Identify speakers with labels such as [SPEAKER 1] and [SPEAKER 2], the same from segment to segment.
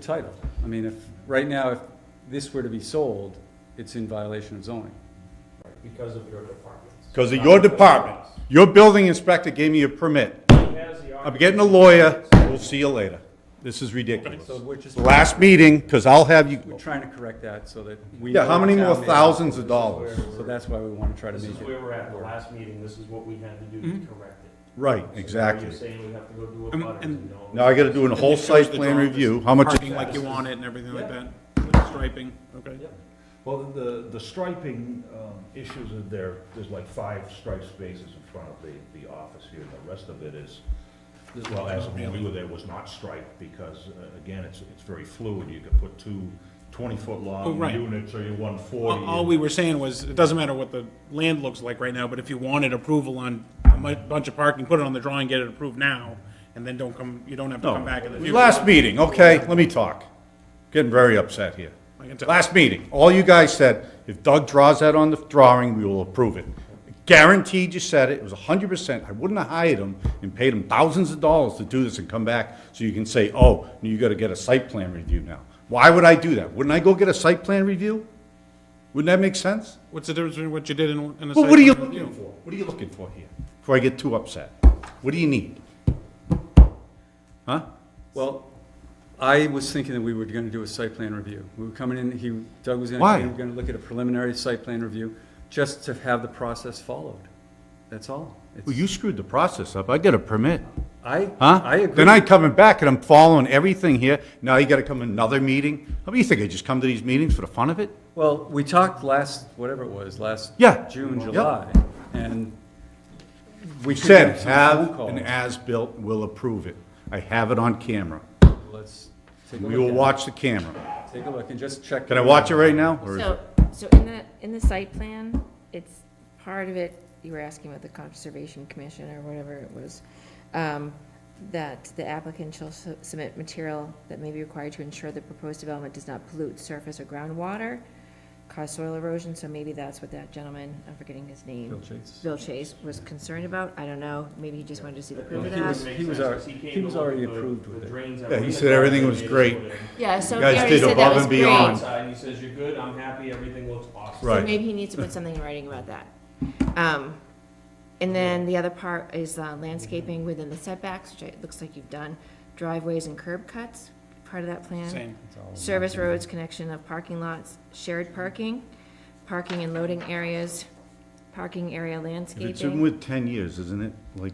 [SPEAKER 1] title. I mean, if, right now, if this were to be sold, it's in violation of zoning.
[SPEAKER 2] because of your departments.
[SPEAKER 3] Because of your department, your building inspector gave me a permit.
[SPEAKER 2] He has the
[SPEAKER 3] I'm getting a lawyer, we'll see you later. This is ridiculous.
[SPEAKER 1] So we're just, we're
[SPEAKER 3] Last meeting, because I'll have you,
[SPEAKER 1] trying to correct that so that we.
[SPEAKER 3] yeah, how many more
[SPEAKER 1] Town
[SPEAKER 3] thousands of
[SPEAKER 2] where
[SPEAKER 3] dollars?
[SPEAKER 2] we're-
[SPEAKER 1] So that's why we want to try to
[SPEAKER 2] This
[SPEAKER 1] make
[SPEAKER 2] is
[SPEAKER 1] it.
[SPEAKER 2] where we're at, the last meeting, this is what we had to do to correct it.
[SPEAKER 3] Right,
[SPEAKER 2] So now
[SPEAKER 3] exactly.
[SPEAKER 2] You're saying we have to go do a butters and all.
[SPEAKER 3] Now I gotta do a whole
[SPEAKER 4] And it shows
[SPEAKER 3] site
[SPEAKER 4] the
[SPEAKER 3] plan
[SPEAKER 4] drawings,
[SPEAKER 3] review, how much,
[SPEAKER 4] Parking like you want it and everything like
[SPEAKER 2] Yeah.
[SPEAKER 4] that, with the striping, okay.
[SPEAKER 2] Yep.
[SPEAKER 5] Well, the, the striping um, issues are there, there's like five striped spaces in front of the, the office here, and the rest of it is, well, as of when we were there, was not striped, because, uh, again, it's, it's very fluid, you could put two twenty-foot
[SPEAKER 4] Oh,
[SPEAKER 5] long
[SPEAKER 4] right.
[SPEAKER 5] units, or you one forty.
[SPEAKER 4] All all we were saying was, it doesn't matter what the land looks like right now, but if you wanted approval on a mu- bunch of parking, put it on the drawing, get it approved now, and then don't come, you don't have to come back in the future.
[SPEAKER 3] Last meeting, okay, let me talk. Getting very upset here.
[SPEAKER 4] I can tell.
[SPEAKER 3] Last meeting, all you guys said, if Doug draws that on the drawing, we will approve it. Guaranteed you said it, it was hundred percent, I wouldn't have hired him and paid him thousands of dollars to do this and come back, so you can say, oh, you gotta get a site plan review now. Why would I do that? Wouldn't I go get a site plan review? Wouldn't that make sense?
[SPEAKER 4] What's the difference between what you did and, and a
[SPEAKER 3] Well,
[SPEAKER 4] site?
[SPEAKER 3] what are you
[SPEAKER 4] plan review?
[SPEAKER 3] looking for? What are you looking for here? Before I get too upset, what do you need? Huh?
[SPEAKER 1] Well, I was thinking that we were going to do a site plan review. We were coming in, he, Doug was going
[SPEAKER 3] Why?
[SPEAKER 1] to, we were going to look at a preliminary site plan review, just to have the process followed. That's all. It's-
[SPEAKER 3] Well, you screwed the process up, I get a permit.
[SPEAKER 1] I,
[SPEAKER 3] Huh?
[SPEAKER 1] I agree.
[SPEAKER 3] Then I'm coming back and I'm following everything here. Now you gotta come another meeting? How do you think I just come to these meetings for the fun of it?
[SPEAKER 1] Well, we talked last, whatever it was, last
[SPEAKER 3] Yeah.
[SPEAKER 1] June,
[SPEAKER 3] Yep.
[SPEAKER 1] July, and we
[SPEAKER 3] You
[SPEAKER 1] could
[SPEAKER 3] said,
[SPEAKER 1] get some phone
[SPEAKER 3] have
[SPEAKER 1] calls.
[SPEAKER 3] an as-built, we'll approve it. I have it on camera.
[SPEAKER 1] Let's take a look.
[SPEAKER 3] We will
[SPEAKER 1] at it.
[SPEAKER 3] watch the camera.
[SPEAKER 1] Take a look and just check.
[SPEAKER 3] Can I watch it right now? or is
[SPEAKER 6] So,
[SPEAKER 3] it-
[SPEAKER 6] so in the, in the site plan, it's, part of it, you were asking about the Conservation Commission or whatever it was, um, that the applicant shall su- submit material that may be required to ensure the proposed development does not pollute surface or groundwater, cause soil erosion, so maybe that's what that gentleman, I'm forgetting his name.
[SPEAKER 1] Bill Chase.
[SPEAKER 6] Bill Chase was concerned about, I don't know, maybe he just wanted to see the proof
[SPEAKER 1] Well,
[SPEAKER 6] of
[SPEAKER 1] he
[SPEAKER 6] that.
[SPEAKER 1] was- he was al- he was already approved with it.
[SPEAKER 3] Yeah, he said everything was great.
[SPEAKER 6] Yeah, so
[SPEAKER 3] You guys
[SPEAKER 6] he already
[SPEAKER 3] did
[SPEAKER 6] said that
[SPEAKER 3] above
[SPEAKER 6] was
[SPEAKER 3] and
[SPEAKER 6] great.
[SPEAKER 3] beyond.
[SPEAKER 2] Outside, he says, you're good, I'm happy, everything looks awesome.
[SPEAKER 3] Right.
[SPEAKER 6] So maybe he needs to put something in writing about that. Um, and then the other part is uh, landscaping within the setbacks, which it looks like you've done, driveways and curb cuts, part of that plan.
[SPEAKER 4] Same.
[SPEAKER 6] Service roads, connection of parking lots, shared parking, parking and loading areas, parking area
[SPEAKER 3] If It's in
[SPEAKER 6] landscaping,
[SPEAKER 3] with ten years, isn't it? Like,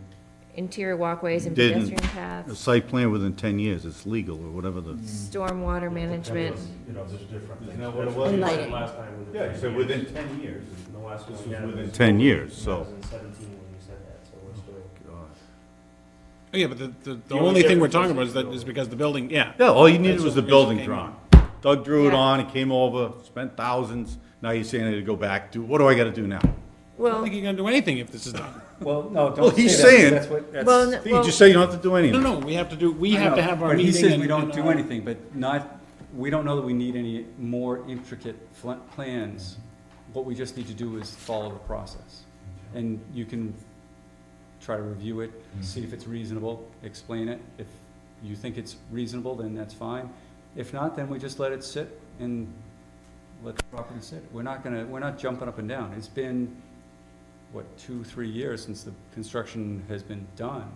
[SPEAKER 6] interior walkways and
[SPEAKER 3] Didn't.
[SPEAKER 6] pedestrian
[SPEAKER 3] a
[SPEAKER 6] paths,
[SPEAKER 3] site plan within ten years, it's legal or whatever the.
[SPEAKER 1] Mm.
[SPEAKER 6] stormwater management.
[SPEAKER 5] You know, there's different things.
[SPEAKER 2] That's what
[SPEAKER 6] was?
[SPEAKER 2] you said
[SPEAKER 6] Lighting.
[SPEAKER 2] Last time. when the
[SPEAKER 3] Yeah, you said
[SPEAKER 2] plan-
[SPEAKER 3] within ten years.
[SPEAKER 2] The last one.
[SPEAKER 3] This
[SPEAKER 2] we
[SPEAKER 3] was
[SPEAKER 2] had
[SPEAKER 3] within
[SPEAKER 2] was
[SPEAKER 3] 10 years, so-
[SPEAKER 2] 2017 when you said that, so we're still.
[SPEAKER 3] uh,
[SPEAKER 4] Oh, Yeah, but the, the, the
[SPEAKER 2] The only
[SPEAKER 4] only thing we're
[SPEAKER 2] difference
[SPEAKER 4] talking
[SPEAKER 2] is
[SPEAKER 4] about
[SPEAKER 2] the
[SPEAKER 4] is that, is because the building, yeah.
[SPEAKER 3] Yeah, all you needed was the
[SPEAKER 4] That's what
[SPEAKER 3] building
[SPEAKER 4] came
[SPEAKER 3] drawn. Doug drew it
[SPEAKER 6] Yeah.
[SPEAKER 3] on, he came over, spent thousands, now you're saying I need to go back, do, what do I gotta do now?
[SPEAKER 4] I don't
[SPEAKER 6] Well,
[SPEAKER 4] think you're gonna do anything if this is done.
[SPEAKER 1] Well, no, don't
[SPEAKER 3] Well, he's
[SPEAKER 1] say
[SPEAKER 3] saying-
[SPEAKER 1] that, 'cause that's what, that's.
[SPEAKER 6] well, n-
[SPEAKER 3] You
[SPEAKER 6] well,
[SPEAKER 3] just say you don't have to do
[SPEAKER 4] No,
[SPEAKER 3] anything.
[SPEAKER 4] no, we have to do, we have to have our
[SPEAKER 1] But
[SPEAKER 4] meeting.
[SPEAKER 1] he says
[SPEAKER 4] and-
[SPEAKER 1] we don't
[SPEAKER 4] and uh,
[SPEAKER 1] do
[SPEAKER 4] all-
[SPEAKER 1] anything, but not, we don't know that we need any more intricate fl- plans. What we just need to do is follow the process. And you can try to review it, see if it's reasonable, explain it. If you think it's reasonable, then that's fine. If not, then we just let it sit and let the property sit. We're not gonna, we're not jumping up and down. It's been, what, two, three years since the construction has been done.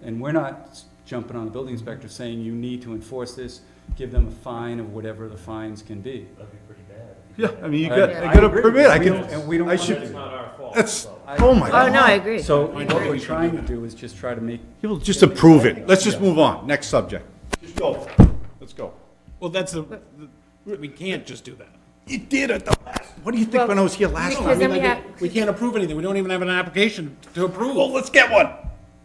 [SPEAKER 1] And we're not s- jumping on the building inspector saying you need to enforce this, give them a fine of whatever the fines can be.
[SPEAKER 2] That'd be pretty bad. if you
[SPEAKER 3] Yeah,
[SPEAKER 2] did that.
[SPEAKER 3] I mean, you
[SPEAKER 1] I-
[SPEAKER 3] got,
[SPEAKER 1] I
[SPEAKER 3] I got a
[SPEAKER 1] agree.
[SPEAKER 3] permit, I
[SPEAKER 1] We
[SPEAKER 3] can,
[SPEAKER 1] don't- and we don't
[SPEAKER 3] I
[SPEAKER 1] want
[SPEAKER 2] But it's
[SPEAKER 3] should,
[SPEAKER 2] not our fault.
[SPEAKER 3] that's,
[SPEAKER 2] so.
[SPEAKER 1] I-
[SPEAKER 3] oh my
[SPEAKER 6] oh, no, I
[SPEAKER 3] god.
[SPEAKER 6] agree.
[SPEAKER 1] So what we're trying to do is just try to make,
[SPEAKER 3] People just approve it, let's just move on, next subject. Just go, let's go.
[SPEAKER 4] Well, that's the, the- we can't just do that.
[SPEAKER 3] You did it the last, what do you think
[SPEAKER 6] Well,
[SPEAKER 3] when I was here last
[SPEAKER 6] Because
[SPEAKER 3] time?
[SPEAKER 6] then we have,
[SPEAKER 4] We can't approve anything, we don't even have an application to approve.
[SPEAKER 3] Well, let's get one.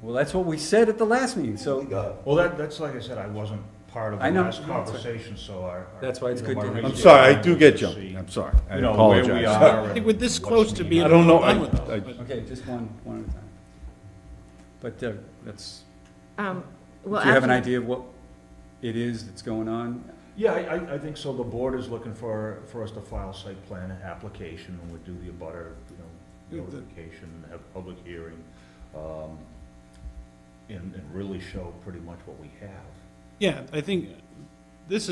[SPEAKER 1] well, that's what we said at the last meeting, so
[SPEAKER 5] Well, that, that's like I said, I wasn't part of
[SPEAKER 1] I
[SPEAKER 5] the
[SPEAKER 1] know.
[SPEAKER 5] last
[SPEAKER 1] No, it's okay.
[SPEAKER 5] conversation, so I.
[SPEAKER 1] That's why it's
[SPEAKER 5] you know,
[SPEAKER 1] good
[SPEAKER 5] my
[SPEAKER 1] to have you.
[SPEAKER 3] I'm
[SPEAKER 5] reasoning
[SPEAKER 3] sorry, I do
[SPEAKER 5] was
[SPEAKER 3] get
[SPEAKER 5] to
[SPEAKER 3] jumped,
[SPEAKER 5] see,
[SPEAKER 3] I'm sorry, I
[SPEAKER 5] You know, where we
[SPEAKER 3] apologize.
[SPEAKER 5] are.
[SPEAKER 4] I
[SPEAKER 5] and
[SPEAKER 4] think we're this
[SPEAKER 5] what's
[SPEAKER 4] close to
[SPEAKER 5] needed.
[SPEAKER 4] being
[SPEAKER 3] I don't know,
[SPEAKER 4] done with
[SPEAKER 3] I,
[SPEAKER 4] this.
[SPEAKER 3] I,
[SPEAKER 1] Okay, just one, one at a time. But uh, that's,
[SPEAKER 6] um,
[SPEAKER 1] do
[SPEAKER 6] well,
[SPEAKER 1] you have an
[SPEAKER 6] actually-
[SPEAKER 1] idea of what it is that's going on?
[SPEAKER 5] Yeah, I, I, I think so. The board is looking for, for us to file site plan application, and we'd do the abutter, you know,
[SPEAKER 4] Yeah, the-
[SPEAKER 5] notification, have public hearing, um, and, and really show pretty much what we have.
[SPEAKER 4] Yeah, I think